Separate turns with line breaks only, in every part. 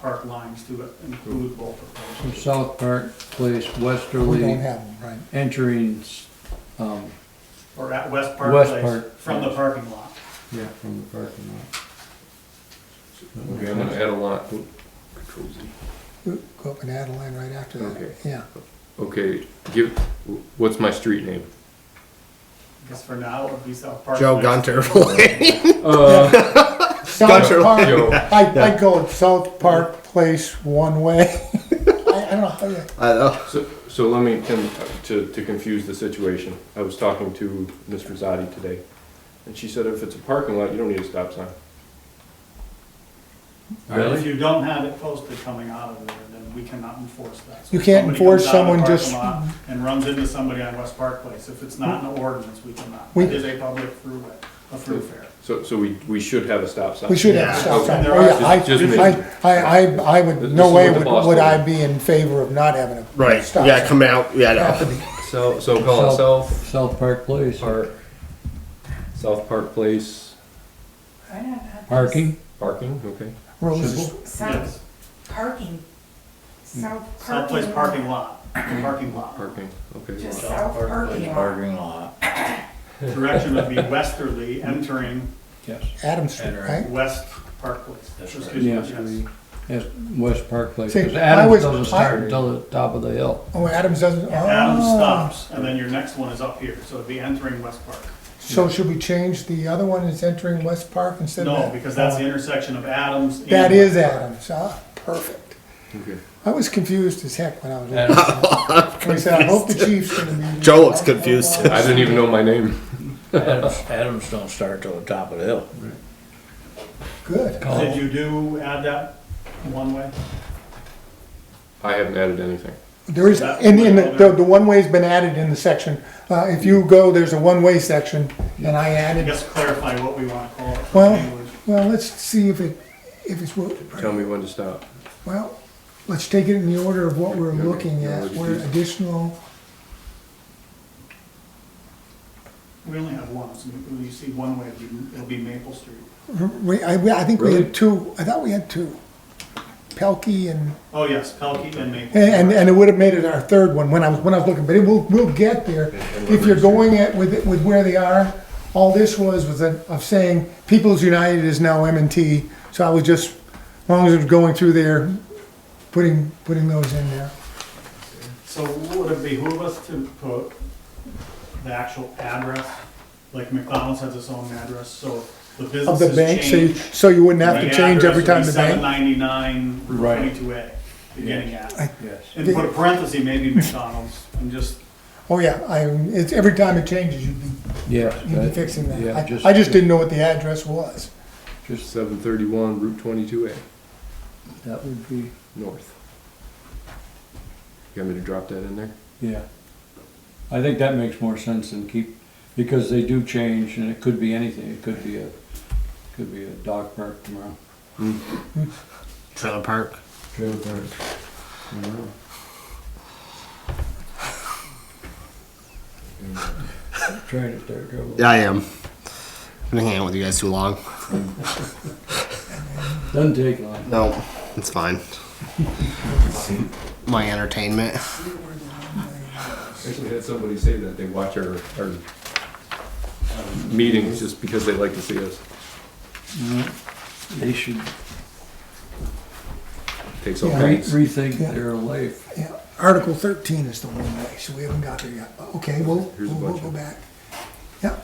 park lines to include both of
From
those.
South Park Place
We don't
westerly,
have them, right?
entering, s- um,
Or at West Park
West
Place,
Park.
from the parking lot.
yeah, from the parking lot.
Okay, I'm gonna add a lot. Oop, Control Z.
Go up and add a line right after that,
Okay.
yeah.
Okay, give, what's my street name?
I guess for now, it would be South Park.
Joe
Place.
Gunter. Lane.
Uh,
South
Gunter
Park,
Joe.
I, I go South Park Place one way. I, I don't know how you,
I know.
so, so let me, Tim, to, to confuse the situation, I was talking to Ms. Rosati today, and she said if it's a parking lot, you don't need a stop sign.
And If you don't have it posted coming out of there, then we cannot enforce that. So
You
if
can't
somebody
enforce
comes out of the
someone
parking
just-
lot And runs into somebody on West Park Place, if it's not in the ordinance, we cannot.
We-
It is a public throughway, a throughfare.
So, so we, we should have a stop sign.
we should have a stop sign.
Yeah,
Oh, yeah, I,
just- just
I,
me.
I, I, I would,
This
no
is
way
what the
would,
boss
would I
told
be in favor of not having a
Right.
stop
yeah,
sign.
come out. Yeah, no.
So, so call it South
South Park Place,
Park, South Park Place
parking,
parking, okay.
Roses,
Yes,
South parking, south
South Place
parking.
parking lot, parking lot.
Parking, okay.
Just south parking lot.
Direction would be westerly, entering
yes.
Adams Street, right?
West Park Place. Excuse me,
Yes, we, yes, West Park Place,
See,
because
I
Adams
was-
doesn't start
I-
until the top of the hill.
Oh, Adams doesn't,
Adam
oh.
stops, and then your next one is up here, so it'd be entering West Park.
So should we change the other one is entering West Park instead of?
No,
that?
because that's the intersection of Adams. and-
That is Adams, ah, perfect.
Okay.
I was confused as heck when I was. looking at it. When he said, I hope the chief's gonna be.
Joe looks confused.
I didn't even know my name.
Adams, Adams don't start till the top of the hill.
Good.
Did you do add that one way?
I haven't added anything.
There is, and, and the, the one-way's been added in the section. Uh, if you go, there's a one-way section, and
I
I added,
guess clarify what we want to call it.
Well-
Language.
well, let's see if it, if it's, wo-
Tell me when to stop.
well, let's take it in the order of what we're looking at, where additional,
We only have one, so when you see one way, it'll be- it'll be Maple Street.
we, I, I think we
Really?
had two, I thought we had two. Pelkey and,
Oh, yes, Pelkey and Maple.
and, and it would have made it our third one when I was, when I was looking, but it will, we'll get there. If you're going at, with, it- with where they are, all this was, was a- of saying People's United is now M and T, so I was just, as long as it was going through there, putting, putting those in there.
So would it behoove us to put the actual address? Like McDonald's has its own address, so the
Of the
businesses
bank, so you,
change.
so you wouldn't have to change every time the
Seven
bank.
ninety-nine Route
Right.
twenty-two A, beginning at.
Yes.
And put a parenthesis, maybe McDonald's, and just,
Oh, yeah, I, it's, every time it changes, you'd be,
Yes.
you'd be
that-
fixing
yeah,
that. I, I just didn't know what the address was.
Just seven thirty-one, Route twenty-two A.
That would be,
North. You want me to drop that in there?
yeah. I think that makes more sense than keep, because they do change, and it could be anything, it could be a, could be a dog park tomorrow.
Hmm.
Trailer park.
Trying to start trouble.
Yeah, I am. I've been hanging out with you guys too long.
Doesn't take long.
No, it's fine. My entertainment.
Actually, had somebody say that they watch our, our meetings just because they like to see us.
They should
Takes
all
all
Yeah. kinds.
kinds.
rethink
Yeah.
their life.
Yeah, Article thirteen is the one way, so we haven't got there yet. Okay, we'll,
Here's a
we'll we'll
bunch
go
of-
back. Yeah.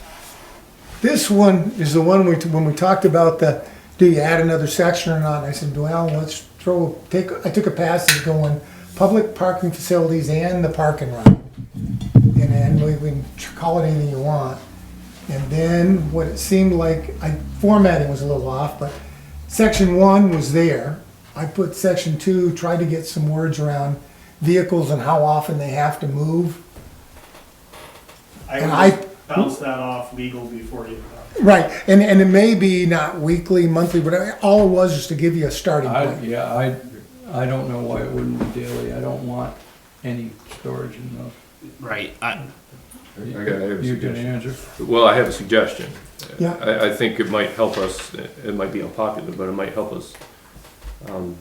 This one is the one we, when we talked about the, do you add another section or not? I said, well, let's throw, take, I took a passage going, public parking facilities and the parking lot. And then we, we can call it anything you want. And then what it seemed like, I, formatting was a little off, but section one was there. I put section two, tried to get some words around vehicles and how often they have to move.
I
And
would
I-
just bounce that off legal before you.
Right, and, and it may be not weekly, monthly, but I- all it was is to give you a starting
I,
point.
yeah, I, I don't know why it wouldn't be daily. I don't want any storage in those.
Right. I,
I got, I have a
You can
suggestion.
answer.
Well, I have a suggestion.
Yeah.
I, I think it might help us, it might be unpopular, but it might help us, um,